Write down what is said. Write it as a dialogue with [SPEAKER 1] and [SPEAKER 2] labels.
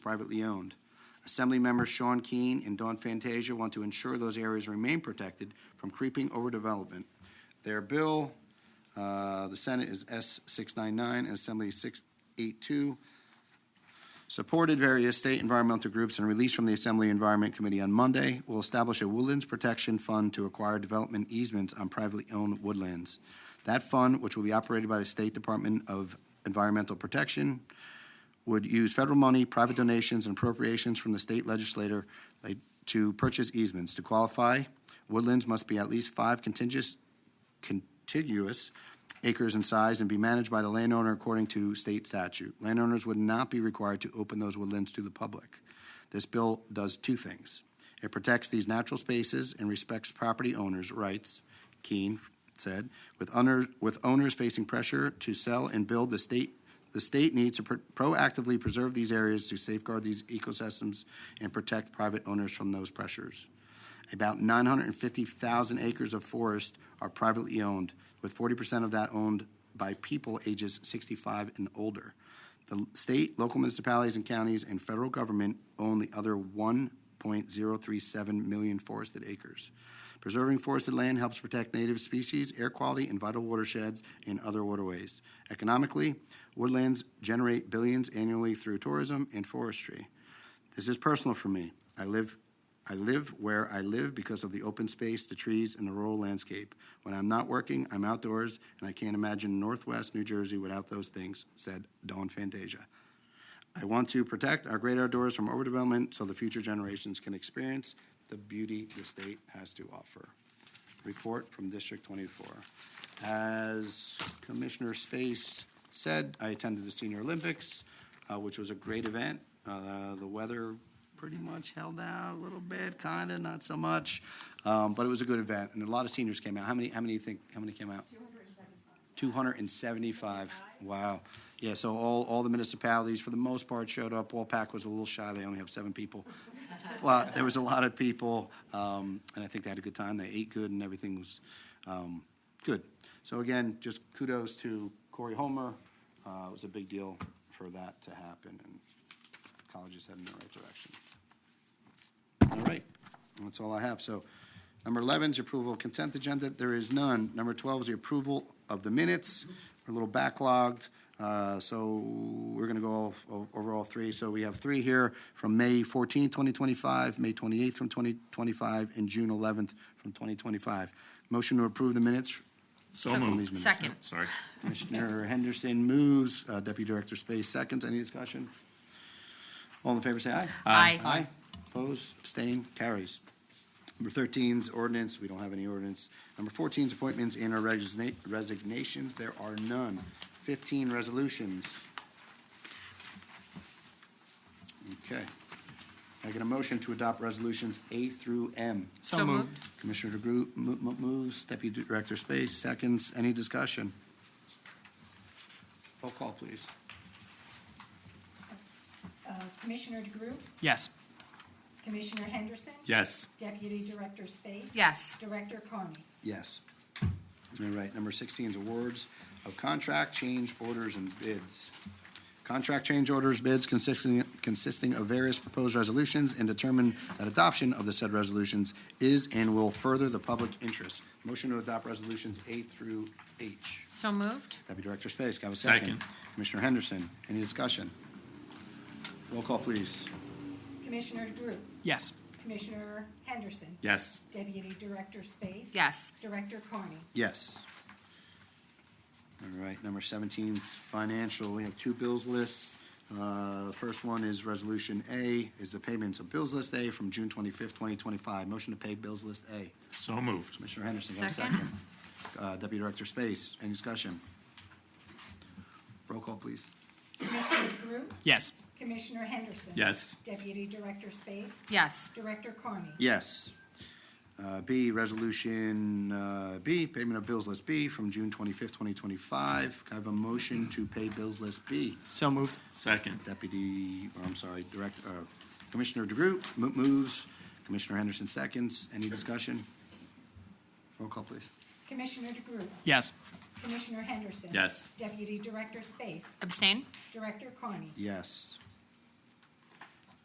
[SPEAKER 1] privately owned. Assemblymembers Sean Keane and Don Fantasia want to ensure those areas remain protected from creeping overdevelopment. Their bill, uh, the Senate is S-699 and Assembly is 682, supported various state environmental groups and released from the Assembly Environment Committee on Monday, will establish a woodlands protection fund to acquire development easements on privately owned woodlands. That fund, which will be operated by the State Department of Environmental Protection, would use federal money, private donations, and appropriations from the state legislator like, to purchase easements. To qualify, woodlands must be at least five contiguous, contiguous acres in size and be managed by the landowner according to state statute. Landowners would not be required to open those woodlands to the public. This bill does two things. It protects these natural spaces and respects property owners' rights, Keene said, with owners, with owners facing pressure to sell and build the state the state needs to pro- proactively preserve these areas to safeguard these ecosystems and protect private owners from those pressures. About 950,000 acres of forest are privately owned, with 40% of that owned by people ages 65 and older. The l- state, local municipalities and counties, and federal government own the other 1.037 million forested acres. Preserving forested land helps protect native species, air quality, and vital watersheds and other waterways. Economically, Woodlands generate billions annually through tourism and forestry. This is personal for me. I live, I live where I live because of the open space, the trees, and the rural landscape. When I'm not working, I'm outdoors, and I can't imagine Northwest New Jersey without those things," said Dawn Fantasia. "I want to protect our great outdoors from overdevelopment so the future generations can experience the beauty the state has to offer." Report from District 24. As Commissioner Space said, I attended the Senior Olympics, uh, which was a great event. Uh, The weather pretty much held out a little bit, kind of, not so much, Um, but it was a good event, and a lot of seniors came out. How many, how many think, how many came out? 275, wow. Yeah, so all, all the municipalities, for the most part, showed up. Wallpack was a little shy, they only have seven people. Well, there was a lot of people, um, and I think they had a good time. They ate good and everything was um, good. So again, just kudos to Corey Homer. Uh, It was a big deal for that to happen, and college is heading in the right direction. All right, that's all I have. So number 11 is approval of consent agenda. There is none. Number 12 is the approval of the minutes. We're a little backlogged, uh, so we're going to go all- o- over all three. So we have three here from May 14, 2025, May 28 from 2025, and June 11th from 2025. Motion to approve the minutes.
[SPEAKER 2] So
[SPEAKER 1] from
[SPEAKER 2] moved.
[SPEAKER 1] these minutes.
[SPEAKER 2] Second.
[SPEAKER 3] Sorry.
[SPEAKER 1] Commissioner Henderson moves, uh, Deputy Director Space seconds. Any discussion? All in favor, say aye.
[SPEAKER 2] Aye. Aye.
[SPEAKER 1] Aye. Opposed, abstained, carries. Number 13 is ordinance, we don't have any ordinance. Number 14 is appointments and or resigna- resignations, there are none. 15, resolutions. Okay. Can I get a motion to adopt resolutions A through M?
[SPEAKER 2] So moved.
[SPEAKER 1] Commissioner DeGroot mo- mo- moves, Deputy Director Space seconds. Any discussion? Roll call, please.
[SPEAKER 4] Uh, Commissioner DeGroot,
[SPEAKER 2] Yes.
[SPEAKER 4] Commissioner Henderson.
[SPEAKER 3] Yes.
[SPEAKER 4] Deputy Director Space.
[SPEAKER 2] Yes.
[SPEAKER 4] Director Carney.
[SPEAKER 1] Yes. All right, number 16 is awards of contract change orders and bids. Contract change orders bids consisting, consisting of various proposed resolutions and determine that adoption of the said resolutions is and will further the public interest. Motion to adopt resolutions A through H.
[SPEAKER 2] So moved?
[SPEAKER 1] Deputy Director Space, can I have a second?
[SPEAKER 3] Second.
[SPEAKER 1] Commissioner Henderson, any discussion? Roll call, please.
[SPEAKER 4] Commissioner DeGroot,
[SPEAKER 2] Yes.
[SPEAKER 4] Commissioner Henderson.
[SPEAKER 3] Yes.
[SPEAKER 4] Deputy Director Space.
[SPEAKER 2] Yes.
[SPEAKER 4] Director Carney.
[SPEAKER 1] Yes. All right, number 17 is financial. We have two bills lists. Uh, The First one is Resolution A, is the payments of bills list A from June 25th, 2025. Motion to pay bills list A.
[SPEAKER 3] So moved.
[SPEAKER 1] Commissioner Henderson, can I have a
[SPEAKER 2] Second.
[SPEAKER 1] second? Uh, Deputy Director Space, any discussion? Roll call, please.
[SPEAKER 4] Commissioner DeGroot,
[SPEAKER 2] Yes.
[SPEAKER 4] Commissioner Henderson.
[SPEAKER 3] Yes.
[SPEAKER 4] Deputy Director Space.
[SPEAKER 2] Yes.
[SPEAKER 4] Director Carney.
[SPEAKER 1] Yes. Uh, B, Resolution uh, B, payment of bills list B from June 25th, 2025. Can I have a motion to pay bills list B?
[SPEAKER 2] So moved?
[SPEAKER 3] Second.
[SPEAKER 1] Deputy, or I'm sorry, Direct, uh, Commissioner DeGroot mo- moves, Commissioner Henderson seconds. Any discussion? Roll call, please.
[SPEAKER 4] Commissioner DeGroot,
[SPEAKER 2] Yes.
[SPEAKER 4] Commissioner Henderson.
[SPEAKER 3] Yes.
[SPEAKER 4] Deputy Director Space.
[SPEAKER 2] Abstain?
[SPEAKER 4] Director Carney.
[SPEAKER 1] Yes.